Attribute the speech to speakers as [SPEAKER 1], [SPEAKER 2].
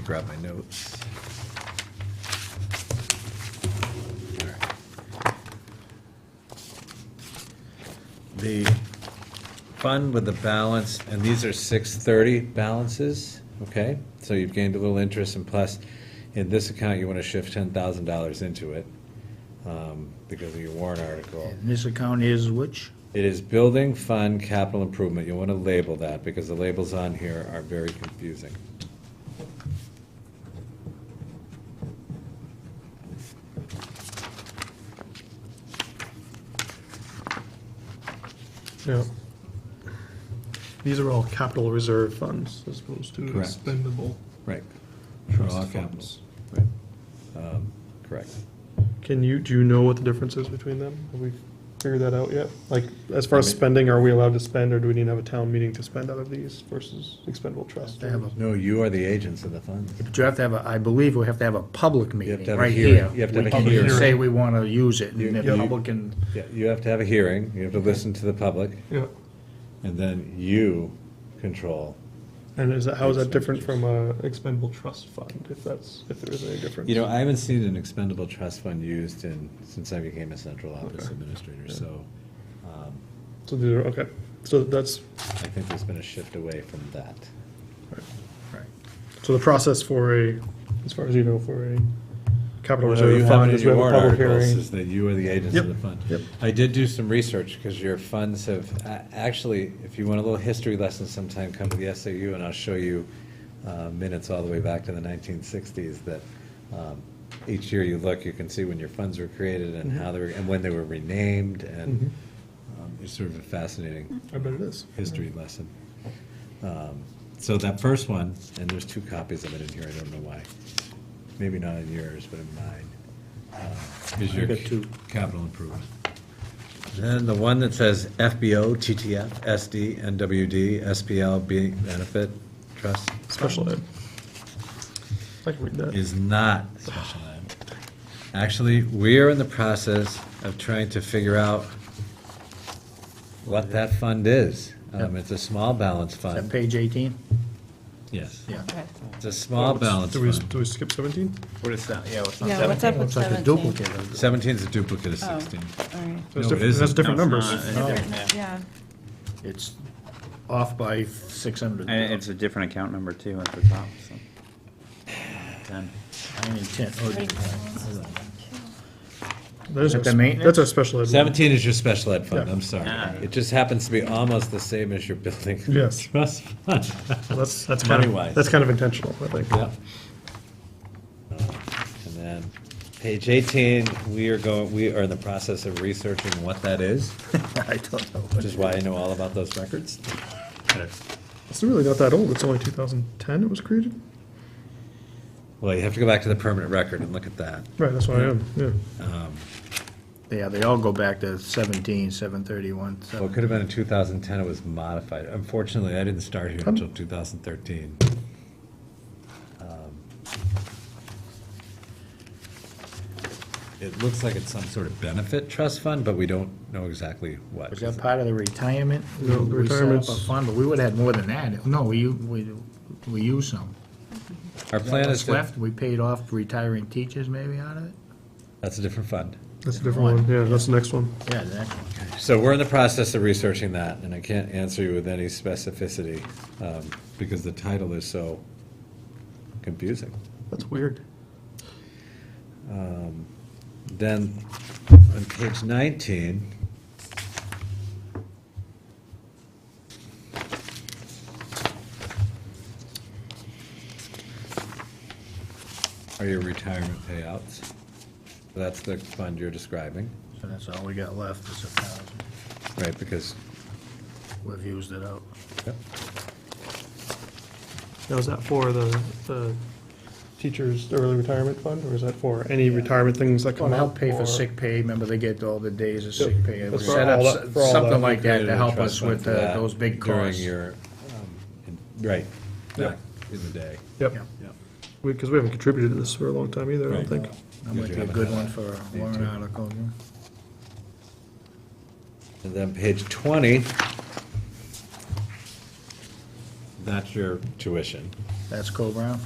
[SPEAKER 1] grab my notes. The fund with the balance, and these are six thirty balances, okay? So you've gained a little interest, and plus, in this account, you want to shift ten thousand dollars into it, um, because of your warrant article.
[SPEAKER 2] And this account is which?
[SPEAKER 1] It is building fund capital improvement. You'll want to label that because the labels on here are very confusing.
[SPEAKER 3] Yeah. These are all capital reserve funds as opposed to
[SPEAKER 1] Correct.
[SPEAKER 3] expendable
[SPEAKER 1] Right. All
[SPEAKER 3] trust
[SPEAKER 1] capital.
[SPEAKER 3] funds.
[SPEAKER 1] Um, Correct.
[SPEAKER 3] Can you, do you know what the difference is between them? Have we figured that out yet? Like, as far as
[SPEAKER 1] I mean-
[SPEAKER 3] spending, are we allowed to spend, or do we need to have a town meeting to spend out of these versus expendable trust?
[SPEAKER 2] They have a-
[SPEAKER 1] No, you are the agents of the funds.
[SPEAKER 2] But you have to have a, I believe we have to have a public
[SPEAKER 1] have to
[SPEAKER 2] meeting
[SPEAKER 1] have a
[SPEAKER 2] right
[SPEAKER 1] hearing.
[SPEAKER 2] here.
[SPEAKER 1] You have to have a
[SPEAKER 2] We can
[SPEAKER 1] hearing.
[SPEAKER 2] Say we want to use it
[SPEAKER 1] You-
[SPEAKER 2] and the
[SPEAKER 1] you-
[SPEAKER 2] public can,
[SPEAKER 1] Yeah, You have to have a hearing, you have to listen to the public,
[SPEAKER 3] Yeah,
[SPEAKER 1] and then you control.
[SPEAKER 3] and is that, how is that different from a expendable trust fund, if that's, if there is any difference?
[SPEAKER 1] You know, I haven't seen an expendable trust fund used in, since I became a central office administrator, so um,
[SPEAKER 3] So these are, okay, so that's,
[SPEAKER 1] I think there's been a shift away from that.
[SPEAKER 2] right.
[SPEAKER 3] so the process for a, as far as you know, for a capital
[SPEAKER 1] So you
[SPEAKER 3] reserve
[SPEAKER 1] have
[SPEAKER 3] fund
[SPEAKER 1] it in
[SPEAKER 3] is we
[SPEAKER 1] your
[SPEAKER 3] have a
[SPEAKER 1] warrant
[SPEAKER 3] public
[SPEAKER 1] articles,
[SPEAKER 3] hearing.
[SPEAKER 1] is that you are the agents
[SPEAKER 3] Yep,
[SPEAKER 1] of the fund.
[SPEAKER 3] yep.
[SPEAKER 1] I did do some research, because your funds have, a- actually, if you want a little history lesson sometime, come to the SAU and I'll show you uh, minutes all the way back to the nineteen sixties that um, each year you look, you can see when your funds were created and
[SPEAKER 3] Mm-hmm.
[SPEAKER 1] how they were, and when they were renamed, and um, it's sort of a fascinating
[SPEAKER 3] I bet it is.
[SPEAKER 1] history lesson. Um, So that first one, and there's two copies of it in here, I don't know why. Maybe not in yours, but in mine, uh, is your
[SPEAKER 2] got two.
[SPEAKER 1] capital improvement. Then the one that says FBO, TTF, SD, NWD, SPL, B benefit, trust.
[SPEAKER 3] Special ed. I can read that.
[SPEAKER 1] Is not special ed. Actually, we are in the process of trying to figure out what that fund is. Um, It's a small balance
[SPEAKER 2] Is that
[SPEAKER 1] fund.
[SPEAKER 2] uh, page 18?
[SPEAKER 1] Yes.
[SPEAKER 2] Yeah.
[SPEAKER 1] It's a small balance
[SPEAKER 3] Do we,
[SPEAKER 1] fund.
[SPEAKER 3] do we skip seventeen?
[SPEAKER 2] What is that? Yeah, what's
[SPEAKER 4] Yeah, what's up with
[SPEAKER 2] Looks like a
[SPEAKER 4] 17?
[SPEAKER 2] duplicate. of it.
[SPEAKER 1] Seventeen's a duplicate of
[SPEAKER 4] Oh,
[SPEAKER 1] sixteen.
[SPEAKER 4] all right.
[SPEAKER 3] That's
[SPEAKER 1] No, it
[SPEAKER 3] different, that's
[SPEAKER 1] isn't.
[SPEAKER 3] different
[SPEAKER 5] No,
[SPEAKER 3] numbers.
[SPEAKER 5] it's
[SPEAKER 2] Oh.
[SPEAKER 4] Yeah,
[SPEAKER 2] It's off by 600.
[SPEAKER 5] And it's a different account number too at the top, so. Ten.
[SPEAKER 2] I mean, 10, oh,
[SPEAKER 3] That is
[SPEAKER 2] Like
[SPEAKER 3] a
[SPEAKER 2] the
[SPEAKER 3] s-
[SPEAKER 2] maintenance?
[SPEAKER 3] That's a special ed.
[SPEAKER 1] Seventeen is your special ed fund, I'm sorry.
[SPEAKER 5] Ah.
[SPEAKER 1] It just happens to be almost the same as your building.
[SPEAKER 3] Yes.
[SPEAKER 1] Trust fund.
[SPEAKER 3] Well, That's, that's kind
[SPEAKER 1] Money-wise.
[SPEAKER 3] of, that's kind of intentional, I think.
[SPEAKER 1] Yep. Uh, And then, page eighteen, we are going, we are in the process of researching what that is,
[SPEAKER 2] I don't know.
[SPEAKER 1] which is why I know all about those records.
[SPEAKER 3] It's really not that old, it's only two thousand ten it was created?
[SPEAKER 1] Well, you have to go back to the permanent record and look at that.
[SPEAKER 3] Right, that's what I am, yeah.
[SPEAKER 2] Yeah, they all go back to 17, 731.
[SPEAKER 1] Well, it could have been in two thousand ten, it was modified. Unfortunately, I didn't start here until two thousand thirteen. Um, It looks like it's some sort of benefit trust fund, but we don't know exactly what.
[SPEAKER 2] Was that part of the retirement?
[SPEAKER 3] No,
[SPEAKER 2] We- we set up
[SPEAKER 3] retirement's-
[SPEAKER 2] a Fund, but we would've had more than that. No, we, u- we, we used some.
[SPEAKER 1] Our plan is
[SPEAKER 2] What's
[SPEAKER 1] to,
[SPEAKER 2] left, we paid off retiring teachers maybe out of it?
[SPEAKER 1] that's a different fund.
[SPEAKER 3] That's a different one, yeah, that's the next one.
[SPEAKER 2] Yeah, the next one.
[SPEAKER 1] So we're in the process of researching that, and I can't answer you with any specificity, um, because the title is so confusing.
[SPEAKER 3] That's weird.
[SPEAKER 1] Then, on page nineteen. Are your retirement payouts? That's the fund you're describing,
[SPEAKER 2] So that's all we got left is a thousand.
[SPEAKER 1] right, because,
[SPEAKER 2] We've used it up.
[SPEAKER 1] yep,
[SPEAKER 3] Now, is that for the, the teachers' early retirement fund, or is that for any retirement things that
[SPEAKER 2] Well,
[SPEAKER 3] come up?
[SPEAKER 2] help pay for
[SPEAKER 3] or-
[SPEAKER 2] sick pay, remember they get all the days of sick pay. We
[SPEAKER 3] That's for
[SPEAKER 2] set
[SPEAKER 3] all
[SPEAKER 2] up
[SPEAKER 3] that- for all
[SPEAKER 2] s- something
[SPEAKER 3] that.
[SPEAKER 2] like that
[SPEAKER 1] created
[SPEAKER 2] to
[SPEAKER 1] a
[SPEAKER 2] help
[SPEAKER 1] trust
[SPEAKER 2] us
[SPEAKER 1] fund
[SPEAKER 2] with
[SPEAKER 1] for
[SPEAKER 2] uh,
[SPEAKER 1] that
[SPEAKER 2] those big
[SPEAKER 1] During
[SPEAKER 2] costs.
[SPEAKER 1] your, um, in- right,
[SPEAKER 3] Yep.
[SPEAKER 1] back in the day.
[SPEAKER 3] Yep,
[SPEAKER 2] Yeah.
[SPEAKER 1] Yep.
[SPEAKER 3] because we haven't contributed to this for a long time either, I
[SPEAKER 1] Right.
[SPEAKER 3] don't think.
[SPEAKER 2] That might be a good one for a warrant article. yeah.
[SPEAKER 1] And then page twenty. That's your tuition.
[SPEAKER 2] That's Co-Brown?